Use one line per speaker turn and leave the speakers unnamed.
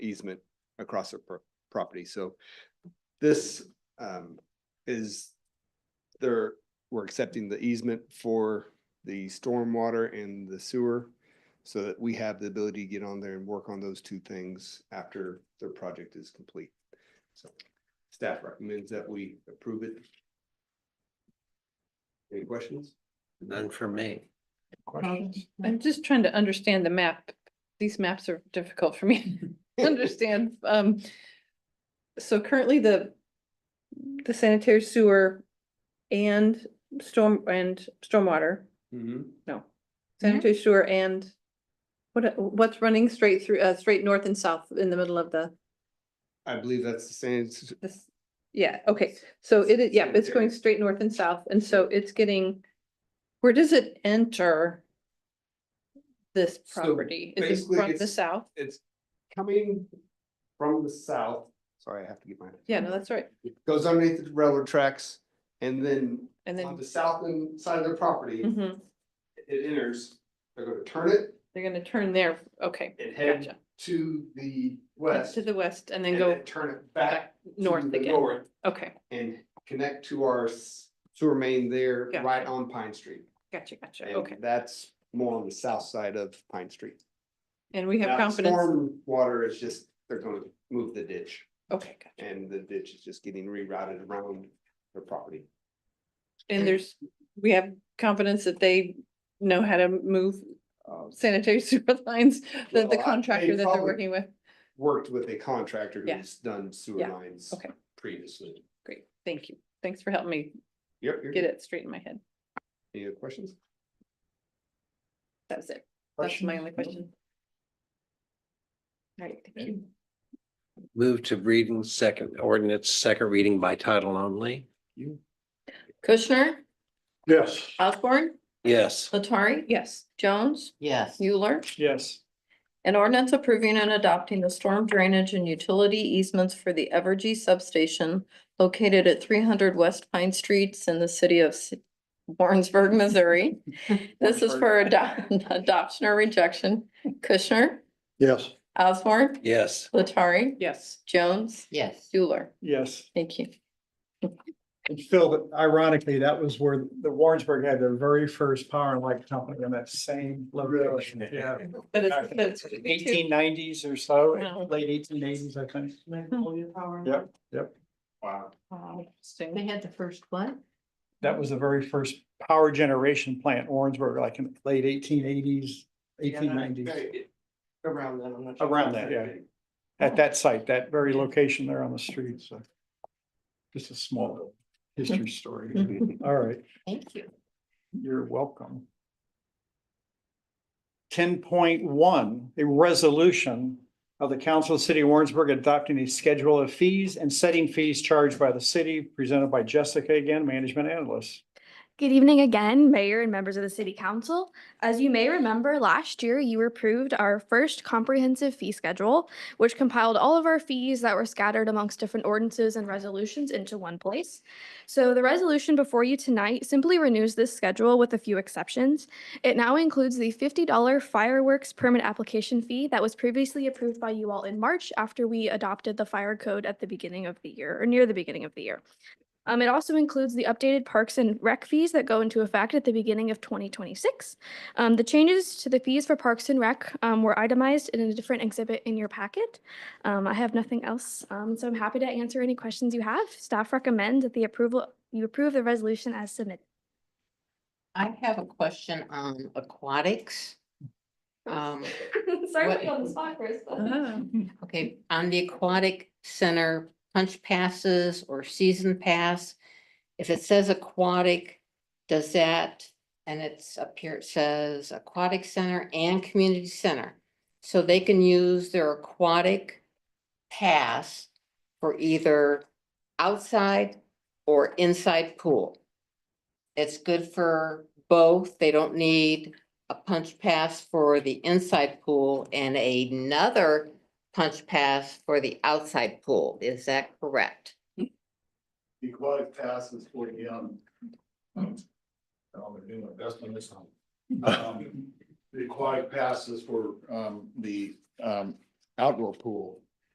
easement across their pro- property. So this um is there, we're accepting the easement for the stormwater and the sewer so that we have the ability to get on there and work on those two things after their project is complete. So staff recommends that we approve it. Any questions?
None for me.
Um,
Questions?
I'm just trying to understand the map. Um, These maps are difficult for me to understand. Um, so currently the, the sanitary sewer and storm, and stormwater,
Mhm.
no. Sanitary sewer and what, what's running straight through, uh, straight north and south in the middle of the,
I believe that's the same, s-
this, yeah, okay. So it, is- yeah, it's going straight north and south, and so it's getting, where does it enter this
So
property? Is
basically
it from the
it's-
south?
it's coming from the south. Sorry, I have to get my.
Yeah, no, that's right.
It Goes underneath the railroad tracks and then
And
on
then,
the south end side of their property,
mhm,
it enters. They're gonna turn it
they're gonna turn there, okay,
and head
gotcha.
to the
Head
west.
To the west and then
and
go
then Turn it back. to
north
the
again,
north
okay,
And connect to our s- sewer main there,
Gotcha.
right on Pine Street.
gotcha, gotcha,
And
okay.
That's more on the south side of Pine Street.
And we have
Now, the
confidence,
storm Water is just, they're gonna move the ditch
okay, gotcha.
and the ditch is just getting rerouted around their property.
and there's, we have confidence that they know how to move uh,
Um,
sanitary sewer lines, that
Well, I-
the
they
contractor that
probably-
they're working with.
Worked with a contractor
Yeah.
who's done sewer
Yeah.
lines
Okay.
previously.
Great, thank you. Thanks for helping me
Yep. you're
get
good.
it straight in my head.
Any other questions?
That was it. That's my only question. All right, thank you.
Move to reading second ordinance, second reading by title only.
Kushner,
Yes.
Osborne,
Yes,
Latari,
Yes,
Jones,
Yes.
Euler.
Yes.
An ordinance approving and adopting the storm drainage and utility easements for the Evergy substation located at three hundred West Pine Streets in the city of S- Warrensburg, Missouri. This is for ado- adoption or rejection. Kushner,
Yes.
Osborne,
yes.
Latari,
yes.
Jones,
Yes.
Euler.
Yes.
Thank you.
And Phil, ironically, that was where the Warrensburg had their very first power and light company in that same location. Yeah.
But it's, but it's.
Eighteen nineties or so,
Wow.
late eighteen eighties, I think.
Yep.
Yep, yep.
Wow.
Um, They had the first one.
That was the very first power generation plant, Warrensburg, like in late eighteen eighties, eighteen nineties.
Around that, I'm not.
sure. Around that, yeah. At that site, that very location there on the street, so. Just a small history
Mm-hmm.
story. All right.
Thank you.
You're welcome. Ten point one, a resolution of the Council of the City of Warrensburg adopting a schedule of fees and setting fees charged by the city, presented by Jessica again, management analyst.
Good evening again, Mayor and members of the City Council. As you may remember, last year you approved our first comprehensive fee schedule, which compiled all of our fees that were scattered amongst different ordinances and resolutions into one place. So the resolution before you tonight simply renews this schedule with a few exceptions. It now includes the $50 fireworks permit application fee that was previously approved by you all in March after we adopted the fire code at the beginning of the year, or near the beginning of the year. Um, it also includes the updated parks and rec fees that go into effect at the beginning of 2026. Um, the changes to the fees for parks and rec um, were itemized in a different exhibit in your packet. Um, I have nothing else, um, so I'm happy to answer any questions you have. Staff recommend that the approval you approve the resolution as submitted.
I have a question on aquatics. Um,
Sorry
What-
spot, Chris. but-
Uh-huh.
okay, on the aquatic center punch passes or season pass. If it says aquatic, does that, and it's up here, it says aquatic center and community center. So they can use their aquatic pass for either outside or inside pool. It's good for both. They don't need a punch pass for the inside pool and another punch pass for the outside pool. Is that correct?
The aquatic pass is for the, um. I'm gonna do my best on this one. Um, The aquatic pass is for, um, the, um, outdoor pool.